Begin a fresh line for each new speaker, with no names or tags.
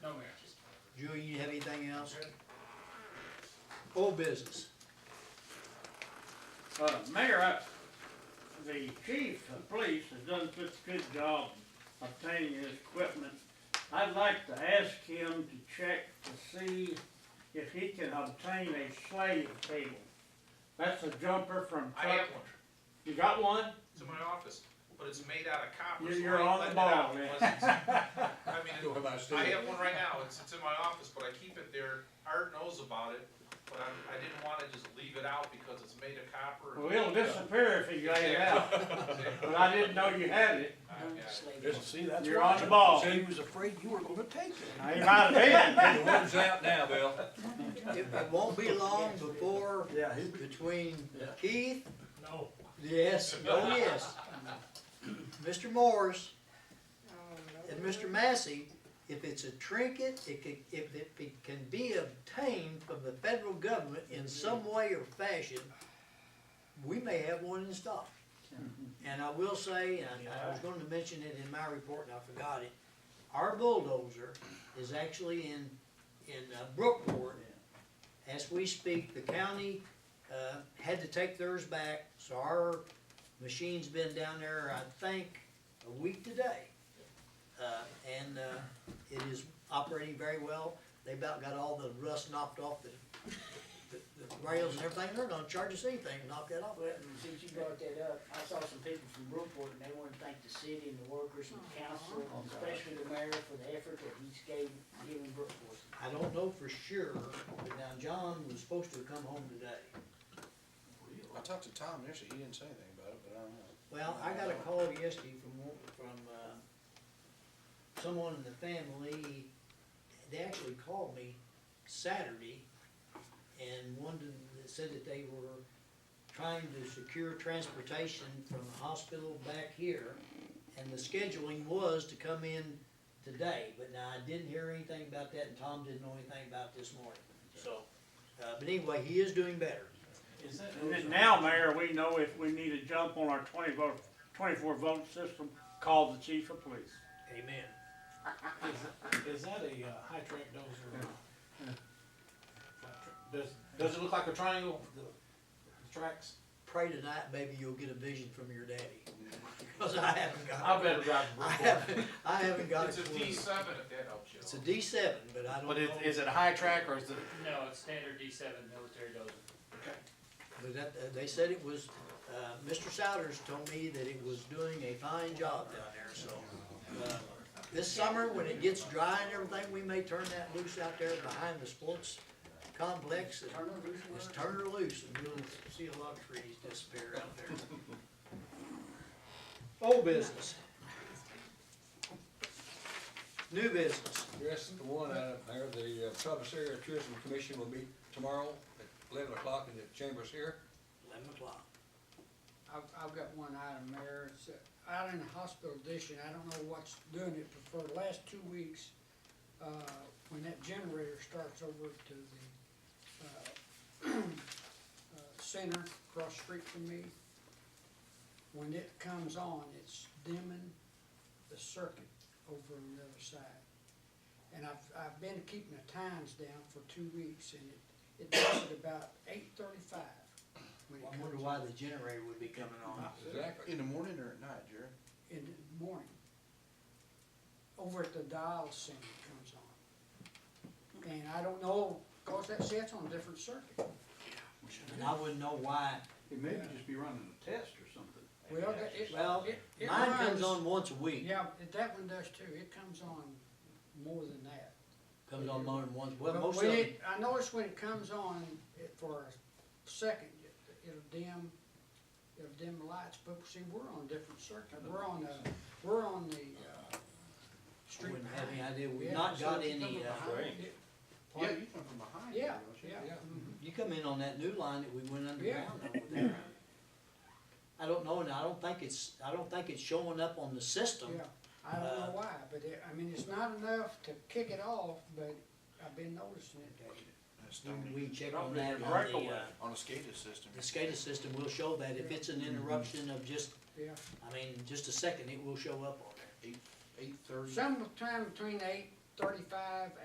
Julie, you have anything else? Old business.
Uh, Mayor, I, the chief of police has done such a good job obtaining his equipment. I'd like to ask him to check to see if he can obtain a slave table. That's a jumper from
I
Chuck.
have one,
You got one?
it's in my office, but it's made out of copper.
You're-
so
you're
I ain't
on the
letting it
ball,
out
man.
unless it's- I mean,
Talking about
I
Steve.
have one right now, it's, it's in my office, but I keep it there, Art knows about it, but I, I didn't wanna just leave it out because it's made of copper.
Well, it'll disappear if you lay it out, but I didn't know you had it.
I've got it.
Just see, that's.
You're
why-
on the ball.
See,
He was afraid you were gonna take it.
I ain't out of it.
the word's out now, Bill.
It it won't be long before,
Yeah, he-
between
Yeah.
Keith,
No.
yes, oh yes, Mr. Morris and Mr. Massey, if it's a trinket, it can, if it be- can be obtained from the federal government in some way or fashion, we may have one in stock. And I will say, and I was going to mention it in my report and I forgot it, our bulldozer is actually in, in uh, Brookport. As we speak, the county, uh, had to take theirs back, so our machine's been down there, I think, a week today. Uh, and, uh, it is operating very well. They about got all the rust knocked off the, the the rails and everything. They're gonna charge us anything to knock that off.
Well, and since you brought that up, I saw some people from Brookport and they wanna thank the city and the workers and the council, and especially the mayor for the effort that he's gave, given Brookport.
I don't know for sure, but now John was supposed to come home today.
I talked to Tom yesterday, he didn't say anything about it, but I don't know.
Well, I got a call yesterday from, one- from, uh, someone in the family. They actually called me Saturday and wanted, said that they were trying to secure transportation from the hospital back here. And the scheduling was to come in today, but now I didn't hear anything about that and Tom didn't know anything about this morning, so. Uh, but anyway, he is doing better.
Is that,
And then now, Mayor, we know if we need a jump on our twenty vote, twenty-four vote system, call the chief of police.
Amen.
is that a uh, high track dozer? or a flat track? Does, does it look like a triangle, the the tracks?
pray tonight, maybe you'll get a vision from your daddy. Cause I haven't got.
I better drive
I
a
haven't, I haven't got a
It's a
clue.
D seven, if that helps you.
It's a D seven, but I don't know.
But is, is it a high track or is it?
No, it's standard D seven military dozer.
But that, uh, they said it was, uh, Mr. Souders told me that it was doing a fine job down there, so. uh, This summer, when it gets dry and everything, we may turn that loose out there behind the sports complex and
Turn it loose, Warren.
just turn her loose and you'll see a lot of trees disappear out there. Old business. New business.
Yes, the one item there, the uh, Traverse Area Tourism Commission will meet tomorrow at eleven o'clock in the chambers here.
Eleven o'clock.
I've, I've got one item, Mayor, it's uh, out in the hospital addition, I don't know what's doing it, but for the last two weeks, uh, when that generator starts over to the, uh, uh, center across the street from me, when it comes on, it's dimming the circuit over on the other side. And I've, I've been keeping the times down for two weeks, and it, it does it about eight thirty-five when it
I
comes on.
wonder why the generator would be coming on.
Exactly.
In the morning or at night, Jerry?
in the morning. Over at the dial center comes on. And I don't know, cause that sets on a different circuit.
And I wouldn't know why.
It may just be running a test or something.
Well, that- it,
Well,
it, it
mine comes
runs-
on once a week.
Yeah, but that one does too, it comes on more than that.
Comes on more than once, well,
But
most of
when
them.
it- I notice when it comes on, it, for a second, it- it'll dim, it'll dim the lights, but see, we're on a different circuit, we're on the, we're on the, uh,
I
street
Wouldn't have any
behind.
idea, we've
Yeah,
not
so
got
if you come
any, uh,
behind
Range.
it-
Yeah, you come from behind.
Yeah,
don't you?
yeah.
Yeah.
mhm.
you come in on that new line that we went underground over there. I don't know, and I don't think it's, I don't think it's showing up on the system.
Yeah, I don't
Uh,
know why, but it, I mean, it's not enough to kick it off, but I've been noticing it that
That's not-
When we check on
Probably a
that, on the,
breakaway.
uh,
On a SCADA system.
the SCADA system, will show that if it's an interruption of just,
yeah.
I mean, just a second, it will show up on there.
Eight thirty.
Sometime between eight thirty-five